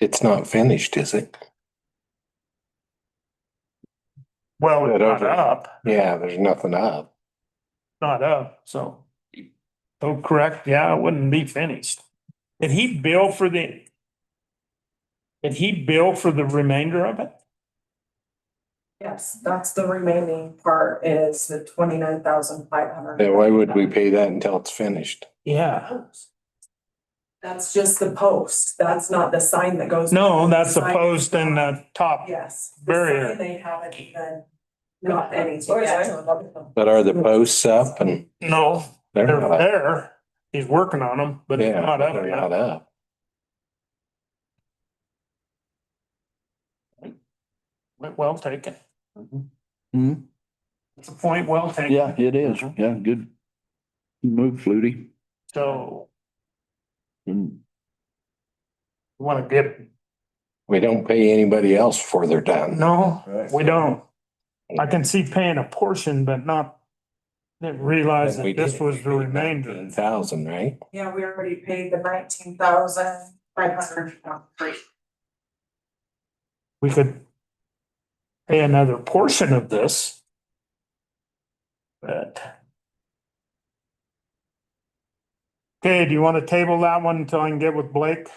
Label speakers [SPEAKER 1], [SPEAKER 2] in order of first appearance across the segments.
[SPEAKER 1] It's not finished, is it?
[SPEAKER 2] Well,
[SPEAKER 1] Yeah,
[SPEAKER 2] it's
[SPEAKER 1] those
[SPEAKER 2] not
[SPEAKER 1] are-
[SPEAKER 2] up,
[SPEAKER 1] Yeah, there's nothing up.
[SPEAKER 2] not up, so. Oh, correct, yeah, it wouldn't be finished. Did he bill for the? Did he bill for the remainder of it?
[SPEAKER 3] Yes, that's the remaining part is the twenty-nine thousand five hundred.
[SPEAKER 1] Then why would we pay that until it's finished?
[SPEAKER 2] Yeah.
[SPEAKER 3] That's just the post. That's not the sign that goes.
[SPEAKER 2] No, that's the
[SPEAKER 3] Sign-
[SPEAKER 2] post and the top.
[SPEAKER 3] Yes. the
[SPEAKER 2] barrier.
[SPEAKER 3] sign, They haven't even got any.
[SPEAKER 4] Or is that-
[SPEAKER 1] But are the posts up and
[SPEAKER 2] No,
[SPEAKER 1] they're
[SPEAKER 2] they're
[SPEAKER 1] not up?
[SPEAKER 2] there. He's working on them, but it's
[SPEAKER 1] Yeah,
[SPEAKER 2] not
[SPEAKER 1] but
[SPEAKER 2] up
[SPEAKER 1] they're
[SPEAKER 2] yet.
[SPEAKER 1] not up.
[SPEAKER 2] But Well taken.
[SPEAKER 5] Hmm,
[SPEAKER 2] It's a point well taken.
[SPEAKER 5] yeah, it is. Yeah, good. Move, Flutie.
[SPEAKER 2] So
[SPEAKER 5] Mm,
[SPEAKER 2] you want to get,
[SPEAKER 1] We don't pay anybody else before they're done.
[SPEAKER 2] no, we don't. I can see paying a portion, but not didn't realize
[SPEAKER 1] We
[SPEAKER 2] that this
[SPEAKER 1] did.
[SPEAKER 2] was the remainder.
[SPEAKER 1] Thousand, right?
[SPEAKER 3] Yeah, we already paid the nineteen thousand five hundred.
[SPEAKER 2] We could pay another portion of this. But. Okay, do you want to table that one until I can get with Blake?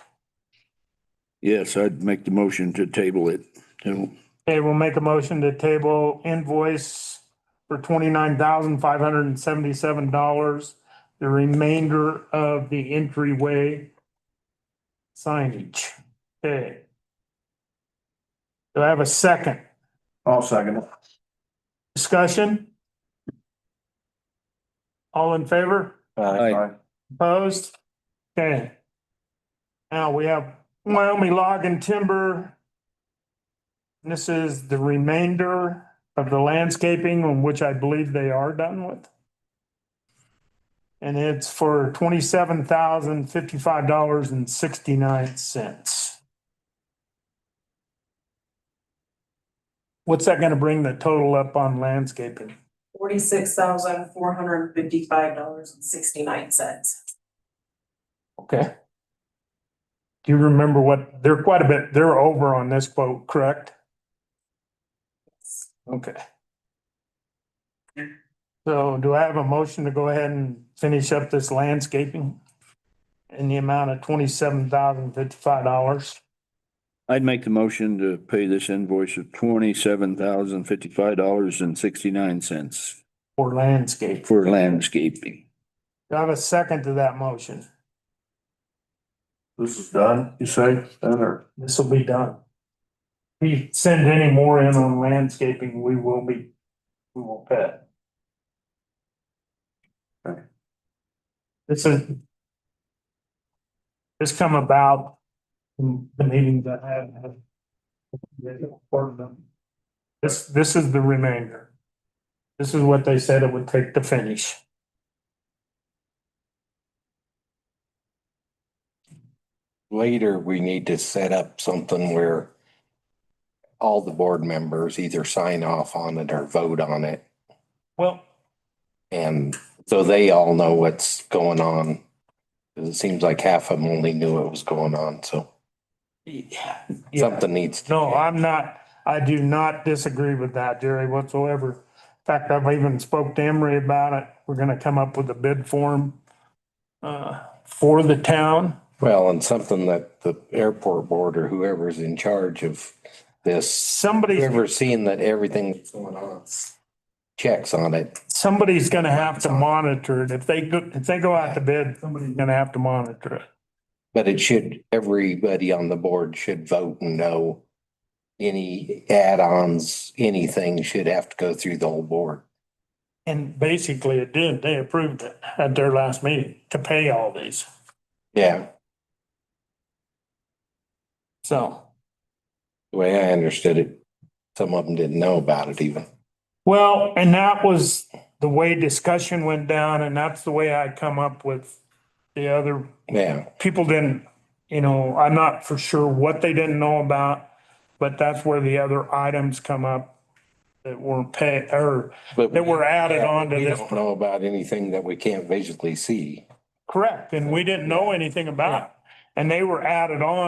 [SPEAKER 5] Yes, I'd make the motion to table it. So,
[SPEAKER 2] Okay, we'll make a motion to table invoice for twenty-nine thousand five hundred and seventy-seven dollars. The remainder of the entryway signage. Okay. Do I have a second?
[SPEAKER 6] I'll second it.
[SPEAKER 2] Discussion? All in favor?
[SPEAKER 1] Uh,
[SPEAKER 5] Aye.
[SPEAKER 2] Opposed? Okay. Now we have Wyoming Log and Timber. This is the remainder of the landscaping on which I believe they are done with. And it's for twenty-seven thousand fifty-five dollars and sixty-nine cents. What's that gonna bring the total up on landscaping?
[SPEAKER 3] Forty-six thousand four hundred fifty-five dollars and sixty-nine cents.
[SPEAKER 2] Okay. Do you remember what, they're quite a bit, they're over on this quote, correct? Okay. So do I have a motion to go ahead and finish up this landscaping? In the amount of twenty-seven thousand fifty-five dollars?
[SPEAKER 5] I'd make the motion to pay this invoice of twenty-seven thousand fifty-five dollars and sixty-nine cents
[SPEAKER 2] For landscape.
[SPEAKER 5] for landscaping.
[SPEAKER 2] Do I have a second to that motion?
[SPEAKER 6] This is done, you say, then, or?
[SPEAKER 2] This will be done. If you send any more in on landscaping, we will be, we will pay.
[SPEAKER 6] Okay.
[SPEAKER 2] This is. This come about from the meetings I had. with Portland. This, this is the remainder. This is what they said it would take to finish.
[SPEAKER 1] Later, we need to set up something where all the board members either sign off on it or vote on it.
[SPEAKER 2] Well,
[SPEAKER 1] And so they all know what's going on. 'Cause It seems like half of them only knew what was going on, so
[SPEAKER 2] yeah.
[SPEAKER 1] something needs. to
[SPEAKER 2] No,
[SPEAKER 1] change.
[SPEAKER 2] I'm not, I do not disagree with that, Jerry, whatsoever. In fact, I've even spoke to Emery about it. We're gonna come up with a bid form uh, for the town.
[SPEAKER 1] Well, and something that the airport board or whoever's in charge of this,
[SPEAKER 2] Somebody's,
[SPEAKER 1] whoever's seeing that everything that's going on checks on it.
[SPEAKER 2] somebody's gonna have to monitor it. If they go, if they go out to bid, somebody's gonna have to monitor it.
[SPEAKER 1] But it should, everybody on the board should vote and know any add-ons, anything should have to go through the whole board.
[SPEAKER 2] And basically it did. They approved it at their last meeting to pay all these,
[SPEAKER 1] Yeah,
[SPEAKER 2] so.
[SPEAKER 1] the way I understood it, some of them didn't know about it even.
[SPEAKER 2] Well, and that was the way discussion went down and that's the way I come up with the other
[SPEAKER 1] Yeah,
[SPEAKER 2] people didn't, you know, I'm not for sure what they didn't know about, but that's where the other items come up that weren't paid or
[SPEAKER 1] but.
[SPEAKER 2] that were added
[SPEAKER 1] Yeah,
[SPEAKER 2] on to
[SPEAKER 1] we
[SPEAKER 2] this.
[SPEAKER 1] don't Know about anything that we can't visually see.
[SPEAKER 2] Correct, and we didn't know anything about. And they were added on